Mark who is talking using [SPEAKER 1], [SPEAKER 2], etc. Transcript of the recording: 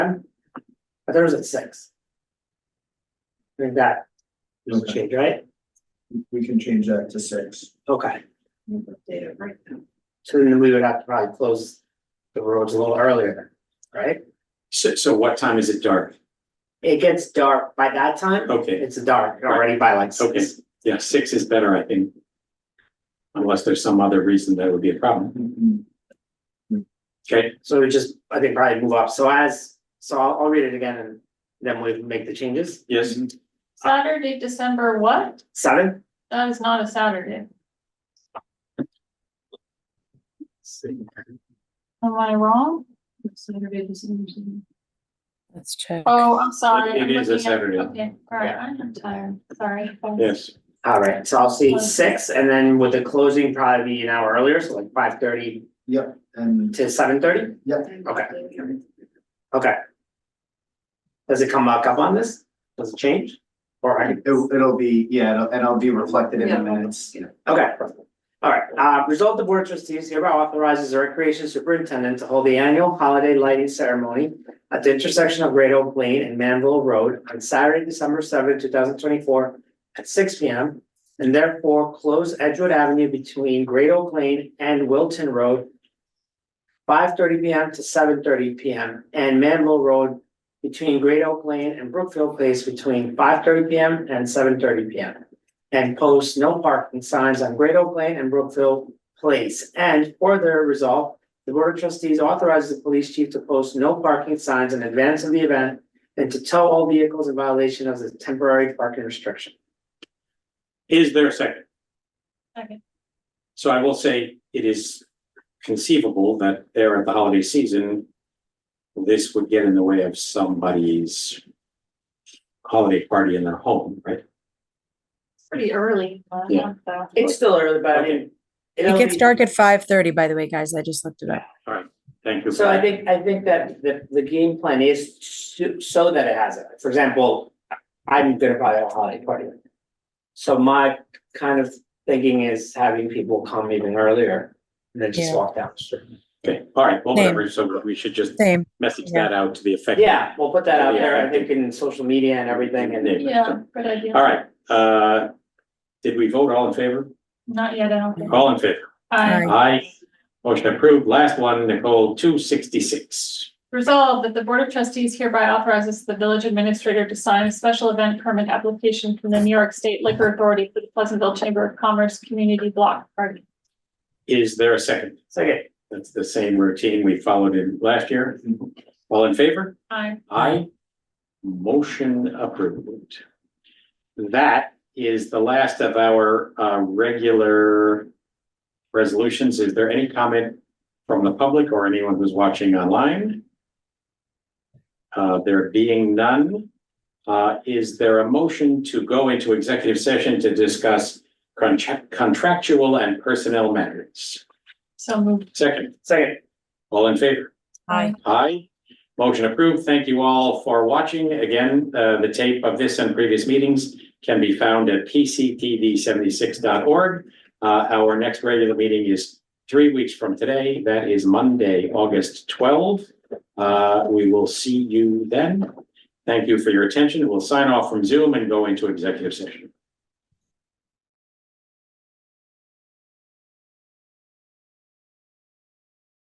[SPEAKER 1] but theirs at six. I think that doesn't
[SPEAKER 2] Okay.
[SPEAKER 1] change, right?
[SPEAKER 2] We can change that to six.
[SPEAKER 1] Okay,
[SPEAKER 3] Update it right now.
[SPEAKER 1] so then we would have to probably close the roads a little earlier, then, right?
[SPEAKER 4] So, so what time is it dark?
[SPEAKER 1] It gets dark by that time.
[SPEAKER 4] Okay,
[SPEAKER 1] It's dark already by like
[SPEAKER 4] okay,
[SPEAKER 1] six.
[SPEAKER 4] yeah, six is better, I think. Unless there's some other reason that would be a problem, okay?
[SPEAKER 1] So we just, I think probably move up. So as, so I'll, I'll read it again and then we make the changes.
[SPEAKER 4] Yes,
[SPEAKER 1] Mm-hmm.
[SPEAKER 3] Saturday, December what?
[SPEAKER 1] Seven,
[SPEAKER 3] That is not a Saturday. Am I wrong? Saturday, December.
[SPEAKER 5] Let's check.
[SPEAKER 3] Oh, I'm sorry.
[SPEAKER 4] It- it
[SPEAKER 3] I'm
[SPEAKER 4] is a
[SPEAKER 3] looking at-
[SPEAKER 4] Saturday.
[SPEAKER 3] Okay, all right, I'm tired, sorry.
[SPEAKER 4] yes,
[SPEAKER 1] all right, so I'll see six and then with the closing probably be an hour earlier, so like five thirty
[SPEAKER 2] Yep, and
[SPEAKER 1] to seven thirty?
[SPEAKER 3] Okay.
[SPEAKER 1] Okay. Does it come back up on this? Does it change? All right,
[SPEAKER 2] it- it'll be, yeah, it'll- and I'll be reflected in the
[SPEAKER 3] Yeah.
[SPEAKER 2] minutes.
[SPEAKER 1] okay. All right, uh, resolve the board trustees hereby authorizes the recreation superintendent to hold the annual holiday lighting ceremony at the intersection of Great Oak Lane and Manville Road on Saturday, December seventh, two thousand twenty-four at six P M. And therefore close Edgewood Avenue between Great Oak Lane and Wilton Road five thirty P M to seven thirty P M and Manville Road between Great Oak Lane and Brookfield Place between five thirty P M and seven thirty P M. And post no parking signs on Great Oak Lane and Brookfield Place. And further resolve, the Board of Trustees authorizes the police chief to post no parking signs in advance of the event and to tow all vehicles in violation of the temporary parking restriction.
[SPEAKER 4] is there a second?
[SPEAKER 3] Second.
[SPEAKER 4] So I will say it is conceivable that there at the holiday season. This would get in the way of somebody's. Holiday party in their home, right?
[SPEAKER 3] Pretty early. uh,
[SPEAKER 4] Yeah.
[SPEAKER 3] so.
[SPEAKER 1] It's still early, but I
[SPEAKER 4] Okay.
[SPEAKER 1] mean.
[SPEAKER 5] It gets dark at five thirty, by the way, guys. I just looked it up.
[SPEAKER 4] Thank you. for
[SPEAKER 1] So I
[SPEAKER 4] that.
[SPEAKER 1] think, I think that the, the game plan is to, so that it has it. For example, I'm gonna probably have a holiday party. So my kind of thinking is having people come even earlier and then just
[SPEAKER 5] Yeah.
[SPEAKER 1] walk down the street.
[SPEAKER 4] Okay, all right, well,
[SPEAKER 5] Same.
[SPEAKER 4] whatever, so we should just
[SPEAKER 5] Same.
[SPEAKER 4] message that out to the effect.
[SPEAKER 1] Yeah, we'll put that out there, I
[SPEAKER 4] Yeah, I think-
[SPEAKER 1] think in social media and everything and.
[SPEAKER 3] Yeah, good idea.
[SPEAKER 4] All right, uh, did we vote all in favor?
[SPEAKER 3] Not yet, I don't think.
[SPEAKER 4] All in favor?
[SPEAKER 3] I
[SPEAKER 4] Aye. Motion approved. Last one, Nicole, two sixty-six.
[SPEAKER 3] resolve that the Board of Trustees hereby authorizes the village administrator to sign a special event permit application from the New York State Liquor Authority for the Pleasantville Chamber of Commerce Community Block Party.
[SPEAKER 4] Is there a second?
[SPEAKER 1] Second,
[SPEAKER 4] That's the same routine we followed in last year. All in favor?
[SPEAKER 3] I
[SPEAKER 4] Aye. Motion approved. That is the last of our uh regular resolutions. Is there any comment from the public or anyone who's watching online? Uh, there being none, uh, is there a motion to go into executive session to discuss contra- contractual and personnel matters?
[SPEAKER 3] so moved.
[SPEAKER 4] Second,
[SPEAKER 1] second,
[SPEAKER 4] all in favor?
[SPEAKER 5] Aye.
[SPEAKER 4] Aye. Motion approved. Thank you all for watching. Again, uh, the tape of this and previous meetings can be found at pctv76.org. Uh, our next regular meeting is three weeks from today. That is Monday, August 12. Uh, we will see you then. Thank you for your attention. We'll sign off from Zoom and go into executive session.